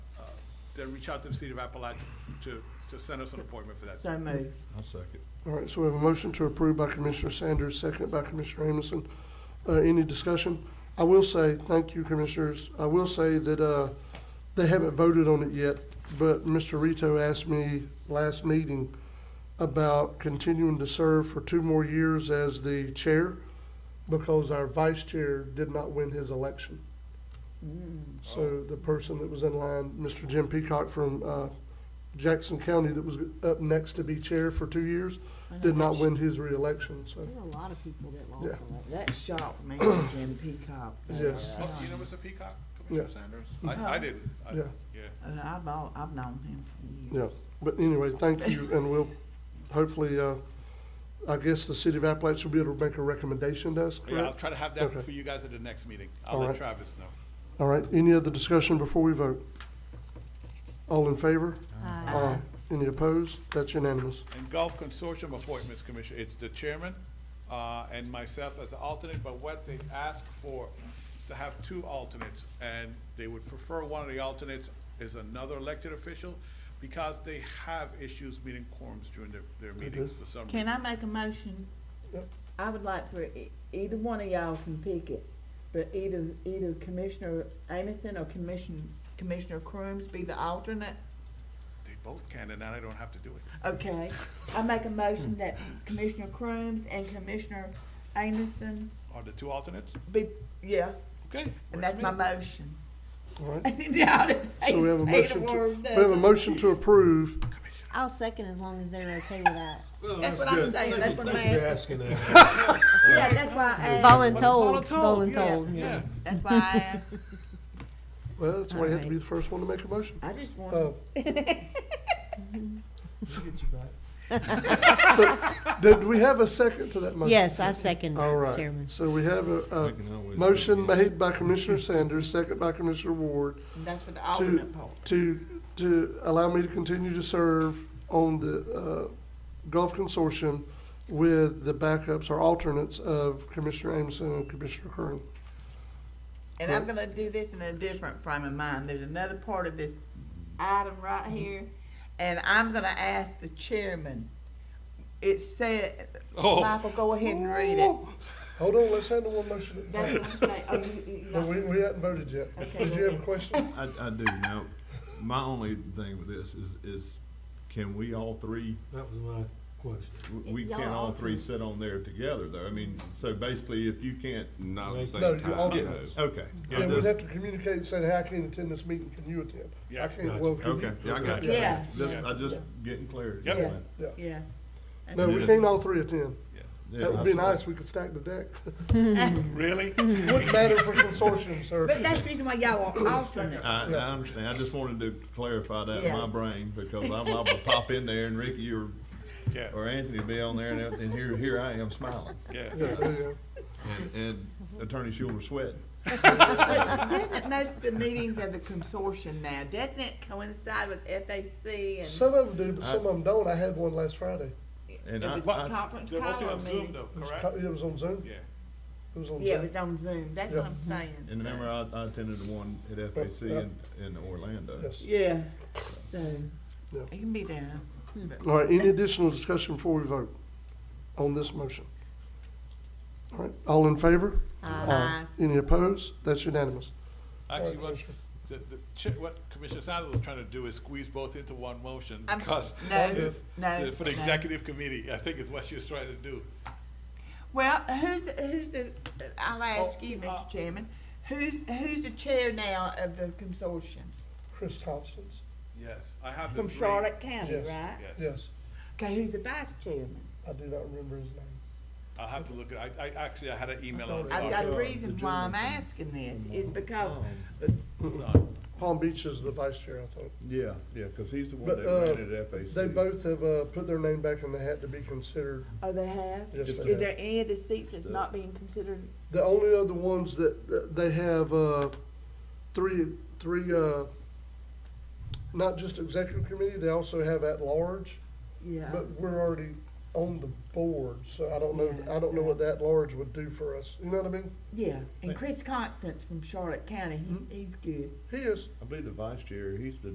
to uh, reach out to the City of Appalachia to, to send us an appointment for that. So moved. I'll second. All right, so we have a motion to approve by Commissioner Sanders, second by Commissioner Amison. Uh, any discussion? I will say, thank you, Commissioners, I will say that, uh, they haven't voted on it yet, but Mr. Rito asked me last meeting about continuing to serve for two more years as the chair because our vice chair did not win his election. Mm. So the person that was in line, Mr. Jim Peacock from, uh, Jackson County that was up next to be chair for two years, did not win his reelection, so. There's a lot of people that lost Yeah. election. That shocked me, Jim Peacock. Yes. Oh, You know Mr. Peacock, Commissioner Yeah. Mm-hmm. Sanders? I, I didn't. I- Yeah. Yeah. Uh, I've, al- I've known him for years. Yeah, but anyway, thank you, and we'll, hopefully, uh, I guess the city of Appalachia will be able to make a recommendation to us, Yeah, I'll correct? try to have that Okay. for you guys at the next meeting. I'll All let right. Travis know. All right, any other discussion before we vote? All in favor? Aye. Any opposed? That's unanimous. And golf consortium appointments, Commissioner, it's the chairman, uh, and myself as the alternate, but what they ask for, to have two alternates, and they would prefer one of the alternates is another elected official, because they have issues meeting quorums during their, their meetings for some reason. Can I make a motion? Yep. I would like for e- either one of y'all can pick it, but either, either Commissioner Amison or Commission, Commissioner Crooms be the alternate. They both can, and now they don't have to do it. Okay, I make a motion that Commissioner Crooms and Commissioner Amison Are the two alternates? be, yeah, Okay. works and that's for my me. motion. All right, Y'all done so we have a made- made motion to, word we have a up. motion to approve. I'll second as long as they're okay with that. Well, That's what I'm good. saying. Thank That's you- what I'm thank you for asking. asking that. Yeah, that's why I asked, Voluntold, Voluntold, yeah, voluntold, yeah. yeah. that's why I asked. Well, that's why you have to be the first one to make a motion. I just Uh, want, so, Did we have a second to that motion? Yes, I second All that, right, Chairman. so we have a, We a can always motion vote made by Commissioner Sanders, second by Commissioner Ward, that's for the to, alternate part. to, to allow me to continue to serve on the, uh, golf consortium with the backups or alternates of Commissioner Amison and Commissioner Kern. And oh. I'm gonna do this in a different frame of mind. There's another part of this item right here, and I'm gonna ask the chairman. It said, Michael, go ahead and read it. Oh. Hold on, let's handle one motion at a That's time. what I'm saying. Oh, you- you- No, we, we haven't voted yet. Okay, Did go you have a ahead. question? I, I do. Now, my only thing with this is, is can we all three, That was my question. w- we can Y'all all three alternates. sit on there together though? I mean, so basically if you can't. at Not the same No, you time, alternates. Okay. Yeah, we'd have to communicate and say, hey, I can't attend this meeting, can you attend? I Yeah. can't, well, can you? Okay, yeah, I got you. Yeah. Just, I just getting clarity. Yep. Yeah. Yeah. Yeah. No, we can't all three attend. That would be Yeah. nice, we could stack the deck. Really? Wouldn't matter for consortium, But sir. that's the reason why y'all Oh. are alternate. I, I understand. I just wanted to clarify that in Yeah. my brain because I'm liable to pop in there and Ricky or, Yeah, or Anthony will be on there and everything. Here, here I am smiling yeah. Yeah, there you and, and Attorney Schuler sweating. Doesn't most of the meetings of the consortium now, doesn't it coincide with FAC go. and Some of them do, but some of them don't. I had one last Friday. And I, the I, conference They're mostly call on Zoom meeting? though, It was correct? co- It was on Zoom. Yeah. It was on Yeah, it Zoom. was on Zoom. That's what I'm saying. And remember, I, I attended the one at FAC in, in Orlando. uh, Yes. Yeah, so, Yeah. it can be there. All right, any additional discussion before we vote on this motion? All right, all in favor? Aye. Any opposed? That's unanimous. Actually, what, the, the, chi- what Commissioner Sanders was trying to do is squeeze both into one motion I'm- because. no, it's- no, For the no. executive committee, I think is what she was trying to do. Well, who's, who's the, I'll ask you, Oh, uh, Mr. Chairman, who's, who's the chair now of the consortium? Chris Constance? Yes, I have the From three. Charlotte County, Yes. right? Yes, Yes, Okay, who's the vice chairman? I do not remember his name. I'll have to look at, I, I, actually, I had an email I on. thought I've got a Sorry. reason why I'm asking this, is Oh. because, Palm Beach is the vice chair, I think. Yeah, yeah, cause he's the one But, that uh, ran at FAC. they both have, uh, put their name back in the hat to be considered. oh, they have? Yes, Is they have. there any of the seats that's not being considered? The only other ones that, that they have, uh, three, three, uh, not just executive committee, they also have at-large, Yeah, but we're already on the board, so I don't know, I don't know what the at-large would do for us, you know what I mean? yeah, and Chris Constance from Charlotte County, he- he's good. He is. I believe the vice chair, he's the